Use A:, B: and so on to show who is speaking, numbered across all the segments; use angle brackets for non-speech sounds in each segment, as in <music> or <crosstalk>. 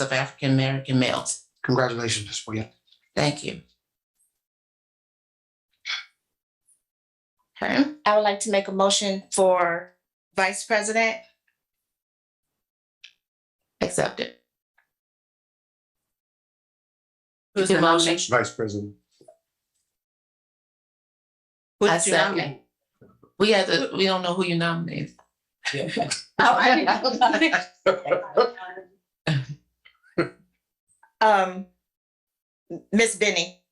A: of African American males.
B: Congratulations, Ms. Williams.
A: Thank you. Okay,
C: I would like to make a motion for vice president.
A: accepted.
D: Who's
A: Do
D: the
A: motion?
D: nomination?
B: Vice President.
A: I
D: Who's your
A: second.
D: nominee?
A: We had to, we don't know who you nominated. <laughs>
C: Oh, I didn't know. Um, Miss Benny,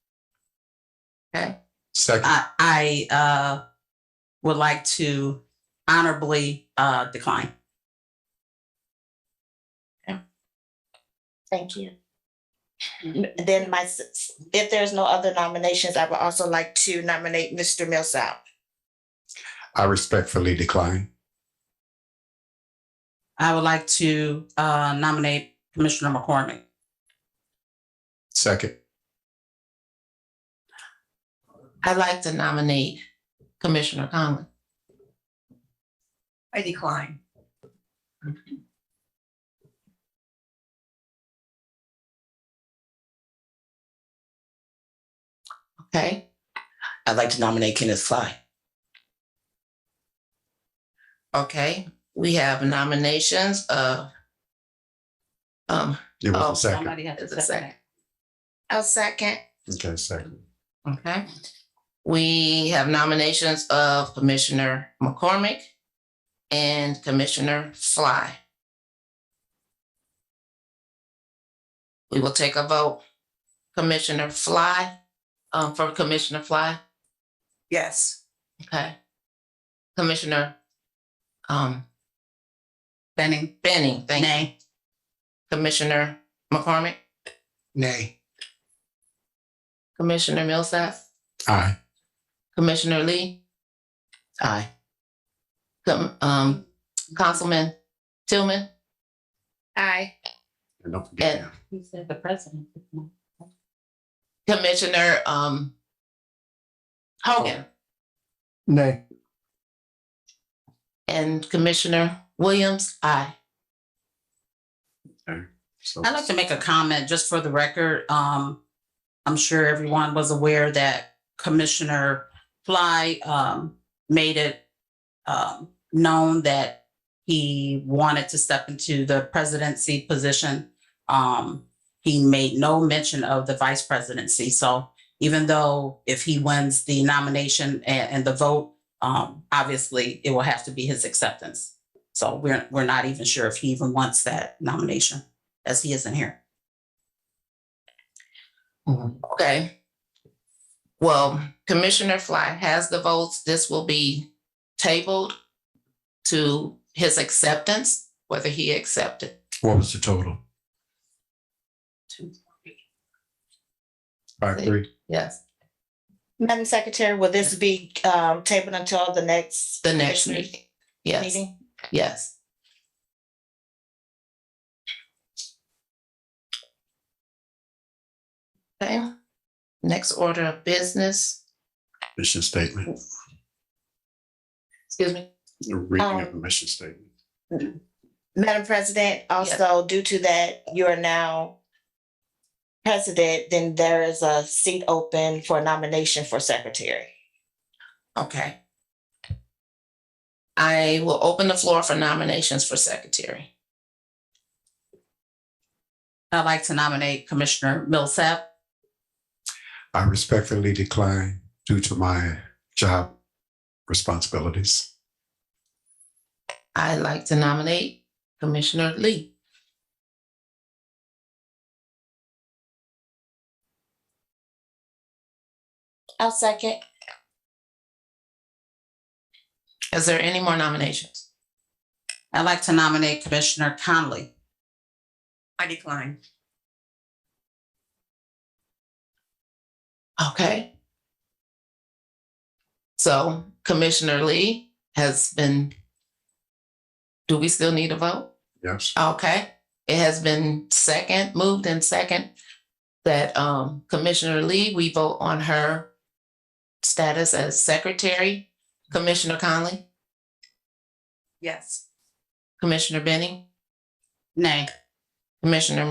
B: Second.
D: I, I, uh, would like to honorably, uh, decline.
C: thank you.
A: Mm-hmm.
C: Then my, s- s- if there's no other nominations, I would also like to nominate Mr. Millsap.
B: I respectfully decline.
D: I would like to, uh, nominate Commissioner McCormick.
B: Second.
A: I'd like to nominate Commissioner Conlon.
E: I decline.
A: Okay,
D: I'd like to nominate Kenneth Fly.
A: okay, we have nominations of um,
B: It was
A: Oh,
B: a second.
D: Somebody has
A: It's
D: to
A: a
D: second.
C: I'll second.
B: Okay, second.
A: Okay. We have nominations of Commissioner McCormick and Commissioner Fly. We will take a vote. Commissioner Fly, um, for Commissioner Fly,
E: Yes.
A: okay. Commissioner, um,
D: Benning,
A: Benning, thank you.
D: nay.
A: Commissioner McCormick,
B: Nay.
A: Commissioner Millsap,
B: Aye.
A: Commissioner Lee. Aye. Com- um, Councilman Tillman.
C: Aye.
B: And don't forget.
A: And-
D: He said the president.
A: Commissioner um Hogan
B: Nay.
A: and Commissioner Williams, aye.
B: So
D: I'd like to make a comment just for the record. Um, I'm sure everyone was aware that Commissioner Fly, um, made it, um, known that he wanted to step into the presidency position. Um, he made no mention of the vice presidency. So even though if he wins the nomination and, and the vote, um, obviously it will have to be his acceptance. So we're, we're not even sure if he even wants that nomination as he isn't here.
A: Okay. Well, Commissioner Fly has the votes. This will be tabled to his acceptance, whether he accepted.
B: What was the total? Five, three.
A: Yes,
C: Madam Secretary, will this be um tabled until the next?
A: the next
C: commissioner's
A: meeting. Yes,
C: Meeting?
A: yes. Okay, next order of business,
B: Mission statement.
A: excuse me.
B: The Reading of
C: Um,
B: the mission statement.
C: Madam President, also due to that, you are now president, then there is a seat open for nomination for secretary.
A: Okay. I will open the floor for nominations for secretary.
D: I'd like to nominate Commissioner Millsap.
B: I respectfully decline due to my job responsibilities.
A: I'd like to nominate Commissioner Lee.
C: I'll second.
A: Is there any more nominations?
D: I'd like to nominate Commissioner Conley.
E: I decline.
A: Okay. So Commissioner Lee has been, do we still need a vote?
B: Yes.
A: Okay, it has been second, moved and second that um Commissioner Lee, we vote on her status as secretary. Commissioner Conley,
E: Yes.
A: Commissioner Benning,
D: Nay.
A: Commissioner